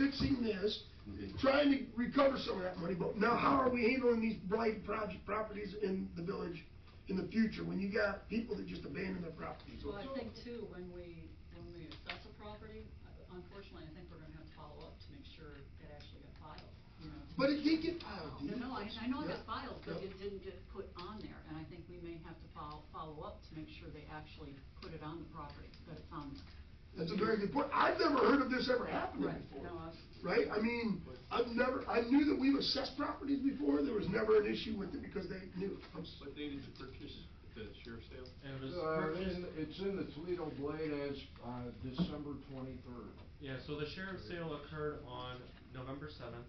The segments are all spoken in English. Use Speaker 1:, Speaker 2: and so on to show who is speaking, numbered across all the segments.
Speaker 1: fixing this,
Speaker 2: Okay.
Speaker 1: trying to recover some of that money, but now how are we handling these blight project, properties in the village in the future, when you got people that just abandon their properties?
Speaker 3: Well, I think too, when we, when we assess a property, uh, unfortunately, I think we're gonna have to follow up to make sure it actually got filed, you know. to
Speaker 1: But it
Speaker 3: make
Speaker 1: did get filed,
Speaker 3: No,
Speaker 1: didn't
Speaker 3: no, I,
Speaker 1: it?
Speaker 3: I know it got
Speaker 1: Yeah.
Speaker 3: filed, but
Speaker 1: Yeah.
Speaker 3: it didn't get put on there, and I think we may have to follow, follow up to make sure they actually put it on the property, that it's on there.
Speaker 1: That's a very good point. I've never heard of this ever happening
Speaker 3: Right,
Speaker 1: before.
Speaker 3: no, I've-
Speaker 1: Right? I mean, I've never, I knew that we've assessed properties before. There was never an issue with it because they knew. I'm s-
Speaker 4: What date did you purchase the sheriff's sale?
Speaker 5: And it was
Speaker 6: Uh,
Speaker 5: purchased,
Speaker 6: in- It's in the Toledo Blade as, uh, December twenty-third.
Speaker 5: yeah, so the sheriff's sale occurred on November seventh,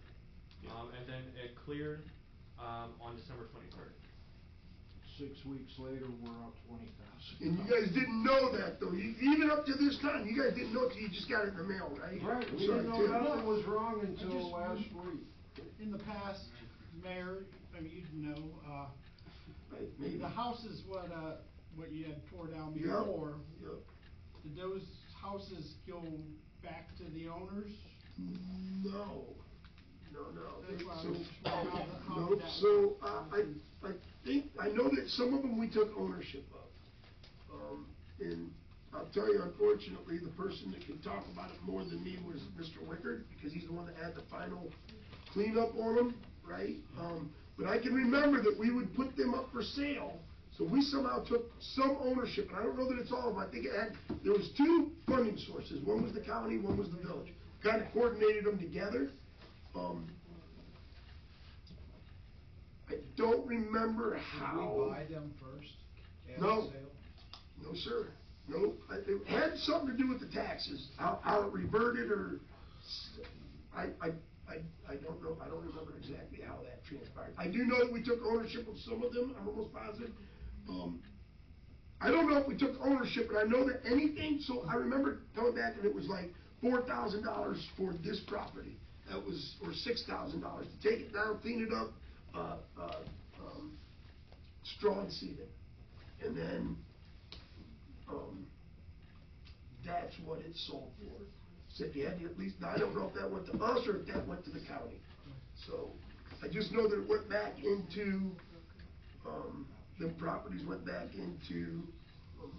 Speaker 5: um, and then it cleared, um, on December twenty-third.
Speaker 6: Six weeks later, we're up twenty thousand.
Speaker 1: And you guys didn't know that though. You- Even up to this time, you guys didn't know till you just got it in the mail, right?
Speaker 6: Right, we
Speaker 1: Sorry,
Speaker 6: didn't know
Speaker 1: Tim.
Speaker 6: nothing was wrong
Speaker 7: I
Speaker 6: until
Speaker 7: just-
Speaker 6: last week.
Speaker 7: In the past, Mayor, I mean, you'd know, uh,
Speaker 1: Right, maybe.
Speaker 7: the houses what, uh, what you had tore down
Speaker 1: Yep,
Speaker 7: before,
Speaker 1: yep.
Speaker 7: did those houses go back to the owners?
Speaker 1: No, no, no.
Speaker 7: That's why I
Speaker 1: So-
Speaker 7: was just wondering how the- how
Speaker 1: Nope,
Speaker 7: that-
Speaker 1: so, uh, I, I think, I know that some of them we took ownership of. Um, and I'll tell you, unfortunately, the person that could talk about it more than me was Mr. Wickard, because he's the one that had the final cleanup on them, right? Um, but I can remember that we would put them up for sale, so we somehow took some ownership, and I don't know that it's all of them, I think it had, there was two funding sources, one was the county, one was the village. Kind of coordinated them together, um, I don't remember how.
Speaker 8: Did we buy them first? at
Speaker 1: No.
Speaker 8: sale?
Speaker 1: No, sir. No, I- it had something to do with the taxes, how, how it reverted or, s- I, I, I, I don't know, I don't remember exactly how that transpired. I do know that we took ownership of some of them, I'm almost positive. Um, I don't know if we took ownership, but I know that anything, so I remember coming back and it was like four thousand dollars for this property. That was, or six thousand dollars to take it down, clean it up, uh, uh, um, straw and seed it. And then, um, that's what it sold for. Said you had to at least, now I don't know if that went to us or if that went to the county. So, I just know that it went back into, um, the properties went back into, um,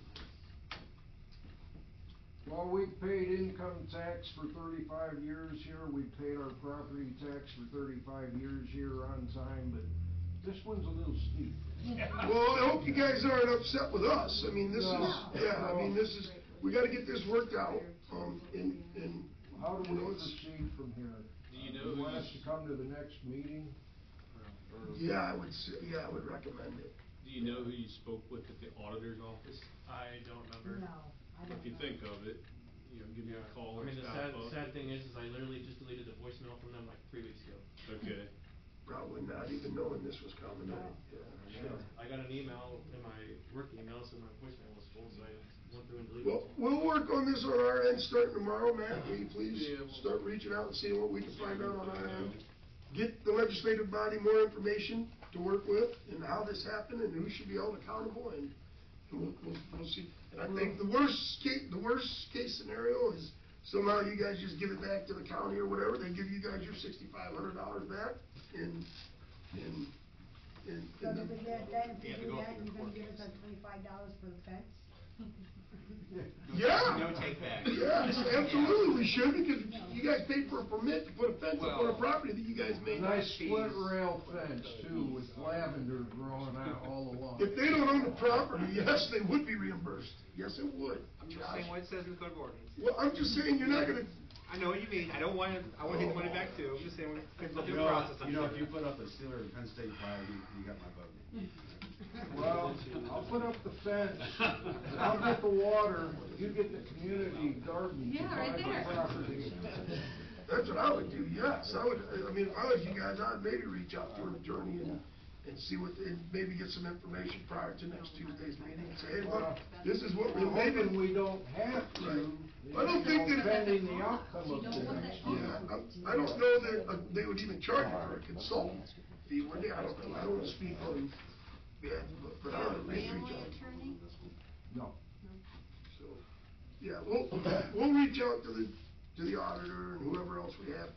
Speaker 6: While we've paid income tax for thirty-five years here, we've paid our property tax for thirty-five years here on time, but this one's a little steep.
Speaker 1: well, I hope you guys aren't upset with us. I mean, this is,
Speaker 6: No.
Speaker 1: yeah, I mean,
Speaker 6: No.
Speaker 1: this is, we gotta get this worked out, um, and, and,
Speaker 6: How do
Speaker 1: you
Speaker 6: we
Speaker 1: know, it's-
Speaker 6: proceed from here?
Speaker 4: Do you
Speaker 6: Uh,
Speaker 4: know
Speaker 6: want us
Speaker 4: who's-
Speaker 6: to come to the next meeting? Or-
Speaker 1: Yeah, I would, s- yeah, I would recommend it.
Speaker 4: Do you know who you spoke with at the auditor's office?
Speaker 5: I don't remember.
Speaker 4: If you think of it, you know, give me a call
Speaker 5: I
Speaker 4: or
Speaker 5: mean, the
Speaker 4: stop
Speaker 5: sad,
Speaker 4: up.
Speaker 5: sad thing is, is I literally just deleted the voicemail from them like three weeks ago.
Speaker 4: Okay.
Speaker 1: Probably not even knowing this was coming up, yeah.
Speaker 5: And I got an email in my work email, so my voicemail was full, so I went through and deleted
Speaker 1: Well,
Speaker 5: it.
Speaker 1: we'll work on this on our end starting tomorrow, Matt. Will you please
Speaker 4: Yeah, we'll-
Speaker 1: start reaching out and seeing what we can
Speaker 4: See what
Speaker 1: find
Speaker 4: we
Speaker 1: out
Speaker 4: can
Speaker 1: on our
Speaker 4: find
Speaker 1: end?
Speaker 4: out.
Speaker 1: Get the legislative body more information to work with and how this happened and who should be held accountable and and we'll, we'll, we'll see. And I think the worst case, the worst case scenario is somehow you guys just give it back to the county or whatever. They give you guys your sixty-five hundred dollars back and, and, and.
Speaker 9: So if we get it done, if
Speaker 2: You
Speaker 9: we
Speaker 2: have to go
Speaker 9: do
Speaker 2: through
Speaker 9: that, you're gonna
Speaker 2: court
Speaker 9: give us
Speaker 2: case.
Speaker 9: like twenty-five dollars for the fence?
Speaker 1: Yeah.
Speaker 2: No take back.
Speaker 1: Yes, absolutely, we should, because you guys paid for a permit to put a fence up on a
Speaker 2: Well-
Speaker 1: property that you guys made.
Speaker 6: Nice split rail fence too, with lavender growing out all along.
Speaker 1: If they don't own the property, yes, they would be reimbursed, yes, it would.
Speaker 2: I'm just
Speaker 1: Josh.
Speaker 2: saying what it says in the code of ordinance.
Speaker 1: Well, I'm just saying, you're not gonna,
Speaker 2: I know what you mean, I don't want to, I want to get the money back too, I'm just saying, we're going through the process.
Speaker 10: You know, if you put up a Steeler and Penn State flag, you, you got my vote.
Speaker 6: Well, I'll put up the fence, I'll get the water, you get the community garden to
Speaker 3: Yeah, right
Speaker 6: buy
Speaker 3: there.
Speaker 6: the property.
Speaker 1: that's what I would do, yes, I would, I mean, if I was you guys, I'd maybe reach out to an attorney and, and see what, and maybe get some information prior to next Tuesday's meeting, and say, hey, look, this is what we're
Speaker 6: We're hoping
Speaker 1: maybe.
Speaker 6: we don't have to,
Speaker 1: Right.
Speaker 6: you
Speaker 1: I don't think
Speaker 6: know,
Speaker 1: that-
Speaker 6: pending the outcome of
Speaker 3: You
Speaker 6: this.
Speaker 3: don't want that.
Speaker 1: Yeah, I, I don't know that uh, they would even charge you for a consultant fee, would they? I don't, know. I don't wanna speak on, yeah, but, but I
Speaker 3: Oh,
Speaker 1: would maybe reach out.
Speaker 3: attorney?
Speaker 6: No.
Speaker 1: So, yeah, we'll, we'll reach out to the to the auditor and whoever else we have